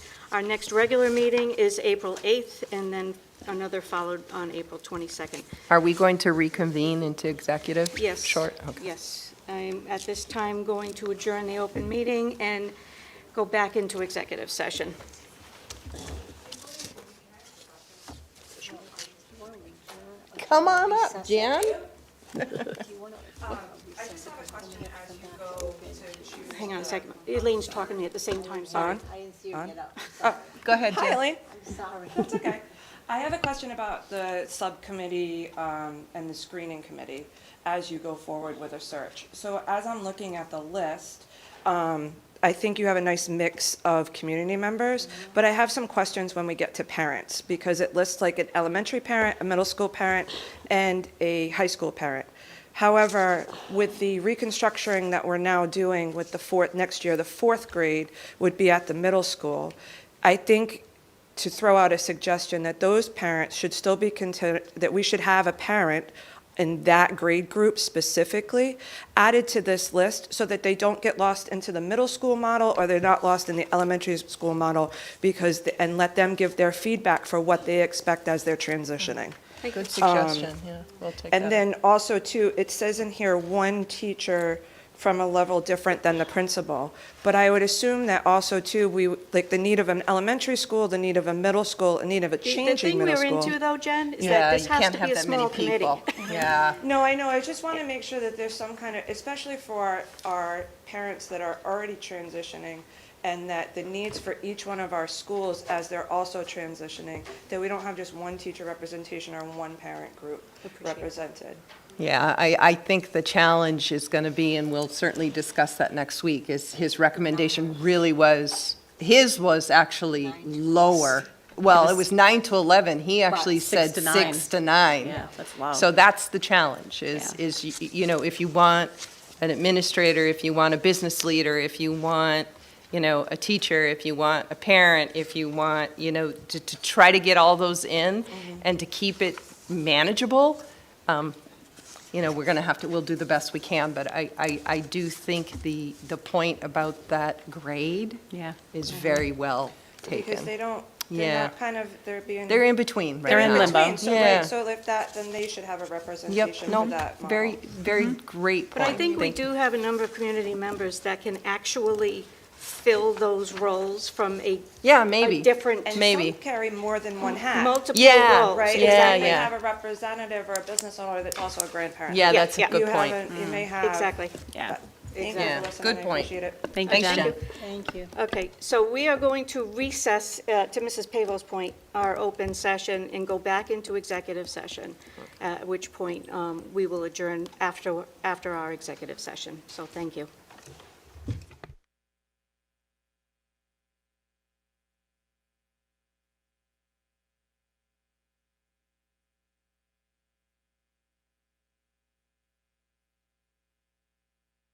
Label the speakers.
Speaker 1: Our next regular meeting is April 8th, and then another followed on April 22nd.
Speaker 2: Are we going to reconvene into executive?
Speaker 1: Yes.
Speaker 2: Short, okay.
Speaker 1: Yes. I'm at this time going to adjourn the open meeting and go back into executive session.
Speaker 2: Come on up, Jan.
Speaker 1: Hang on a second. Elaine's talking to me at the same time, sorry.
Speaker 3: I didn't see her get up.
Speaker 2: Go ahead,
Speaker 4: Hi,
Speaker 2: Jan.
Speaker 4: Elaine.
Speaker 3: I'm sorry.
Speaker 4: It's okay. I have a question about the subcommittee um, and the screening committee as you go forward with a search. So as I'm looking at the list, um, I think you have a nice mix of community members, but I have some questions when we get to parents, because it lists like an elementary parent, a middle school parent, and a high school parent. However, with the reconstructuring that we're now doing with the fourth, next year, the fourth grade would be at the middle school. I think to throw out a suggestion that those parents should still be considered, that we should have a parent in that grade group specifically added to this list so that they don't get lost into the middle school model or they're not lost in the elementary school model because, and let them give their feedback for what they expect as they're transitioning.
Speaker 2: Good suggestion, yeah. We'll take that.
Speaker 4: And then also too, it says in here, one teacher from a level different than the principal. But I would assume that also too, we, like the need of an elementary school, the need of a middle school, the need of a
Speaker 1: The
Speaker 4: changing
Speaker 1: thing
Speaker 4: middle
Speaker 1: we're
Speaker 4: school.
Speaker 1: into, though, Jen, is that
Speaker 2: Yeah,
Speaker 1: this
Speaker 2: you
Speaker 1: has
Speaker 2: can't
Speaker 1: to be
Speaker 2: have
Speaker 1: a
Speaker 2: that many
Speaker 1: small committee.
Speaker 2: people. Yeah.
Speaker 4: No, I know, I just want to make sure that there's some kind of, especially for our parents that are already transitioning, and that the needs for each one of our schools as they're also transitioning, that we don't have just one teacher representation or one parent group represented.
Speaker 2: Yeah, I, I think the challenge is going to be, and we'll certainly discuss that next week, is his recommendation really was, his was actually lower. Well, it was nine to 11. He actually
Speaker 5: six
Speaker 2: said
Speaker 5: to nine.
Speaker 2: six to nine.
Speaker 5: Yeah, that's low.
Speaker 2: So that's the challenge, is,
Speaker 5: Yeah.
Speaker 2: is, y- you know, if you want an administrator, if you want a business leader, if you want, you know, a teacher, if you want a parent, if you want, you know, to, to try to get all those in
Speaker 5: Mm-hmm.
Speaker 2: and to keep it manageable, um, you know, we're going to have to, we'll do the best we can, but I, I, I do think the, the point about that grade
Speaker 5: Yeah.
Speaker 2: is very well
Speaker 4: Mm-hmm. Because they
Speaker 2: taken.
Speaker 4: don't,
Speaker 2: Yeah.
Speaker 4: they're not kind of, they're being.
Speaker 2: They're in between right
Speaker 5: They're in
Speaker 2: now.
Speaker 5: limbo.
Speaker 4: between, So,
Speaker 2: Yeah.
Speaker 4: right, so if that, then they should have a representation
Speaker 2: Yep,
Speaker 4: for
Speaker 2: no,
Speaker 4: that model.
Speaker 2: very, very
Speaker 5: Mm-hmm.
Speaker 2: great point.
Speaker 1: But I think we
Speaker 2: Thank-
Speaker 1: do have a number of community members that can actually fill those roles from a
Speaker 2: Yeah, maybe.
Speaker 1: a different,
Speaker 4: And
Speaker 2: Maybe.
Speaker 4: some carry more than one hat.
Speaker 1: multiple
Speaker 2: Yeah,
Speaker 1: roles.
Speaker 4: Right,
Speaker 2: Yeah,
Speaker 4: exactly,
Speaker 2: yeah.
Speaker 4: have a representative or a business owner that's also a grandparent.
Speaker 2: Yeah,
Speaker 1: Yeah,
Speaker 2: that's a
Speaker 1: yeah.
Speaker 2: good
Speaker 4: You
Speaker 2: point. Mm.
Speaker 4: haven't, you may have.
Speaker 1: Exactly.
Speaker 5: Yeah.
Speaker 4: Exactly,
Speaker 2: Yeah,
Speaker 4: listen,
Speaker 2: good
Speaker 4: I
Speaker 2: point.
Speaker 4: appreciate it.
Speaker 5: Thank you,
Speaker 2: Thanks,
Speaker 5: Jen.
Speaker 2: Jen.
Speaker 5: Thank you.
Speaker 1: Okay, so we are going to recess, uh, to Mrs. Pavo's point, our open session and go back into executive session, uh, at which point um, we will adjourn after, after our executive session. So thank you.